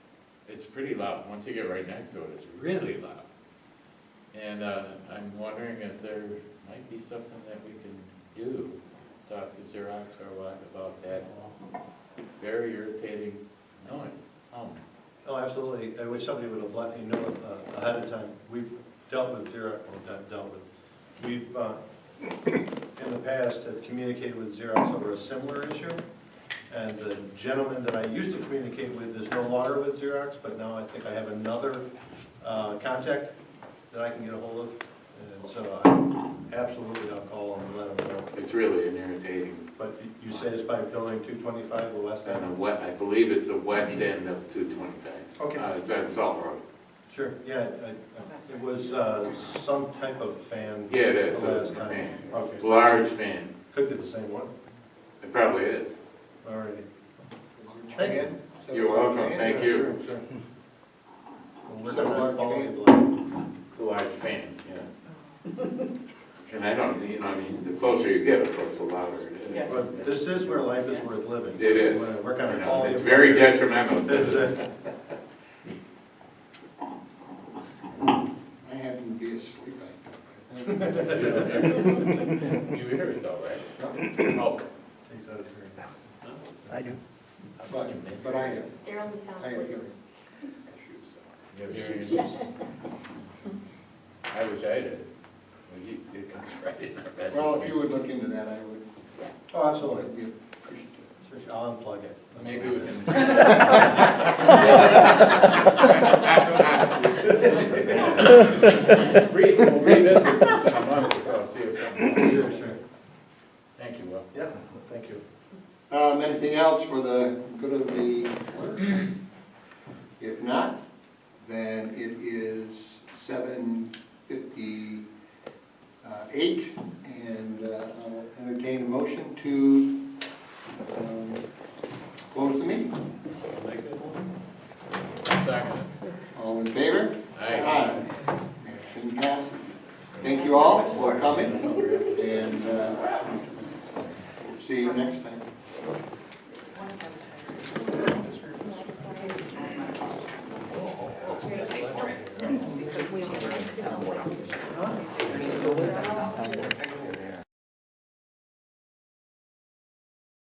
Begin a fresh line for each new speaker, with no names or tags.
It's pretty loud, once you get right next to it, it's really loud. And, uh, I'm wondering if there might be something that we can do, talk to Xerox or what about that very irritating noise. Um,
Oh, absolutely. I wish somebody would have let me know uh, ahead of time. We've dealt with Xerox, well, not dealt with, we've, uh, in the past, have communicated with Xerox over a similar issue. And the gentleman that I used to communicate with is no longer with Xerox, but now I think I have another uh, contact that I can get a hold of. And so I absolutely, I'll call him and let him know.
It's really an irritating,
But you say it's by building 225, the west
on the
end?
we, I believe it's the west end of two twenty-five.
Okay.
Uh, it's on Salt Road.
Sure, yeah, I- I- it was uh, some type of fan.
Yeah, it is,
The last
it's a
time.
fan,
Okay.
large fan,
Could be the same one,
it probably is.
all right. Thank you.
You're welcome, thank you.
Sure, sure. Well, we're
Some
gonna
large
call
fan.
it-
The large fan, yeah. And I don't, you know, I mean, the closer you get, of course, the louder it is.
Yeah.
But this is where life is worth living.
It is.
So We're
I
gonna
know,
call
It's
you.
very detrimental.
That's
to-
it.
I happen to be asleep. I think.
You hear it though, right? Oh,
Takes out a turn.
I do.
how can you miss
But,
it?
but I have,
Daryl's a
I
sound
have
sleeper.
hearing.
You have hearing issues? I wish I did. Well, you- It comes right in our bedroom.
Well, if you would look into that, I would,
Oh,
I
absolutely.
would be appreciative.
Sure, sure, I'll unplug it.
Maybe we can. Re- We'll revisit this in a month or so, see if something.
Sure, sure.
Thank you, Will.
Yeah, thank you.
Um, anything else for the good of the order? If not, then it is seven fifty-eight, and uh, I'll entertain a motion to, um, close the meeting.
Like that one? Second.
All in favor?
Aye.
Motion passes. Thank you all for coming, and uh, see you next time.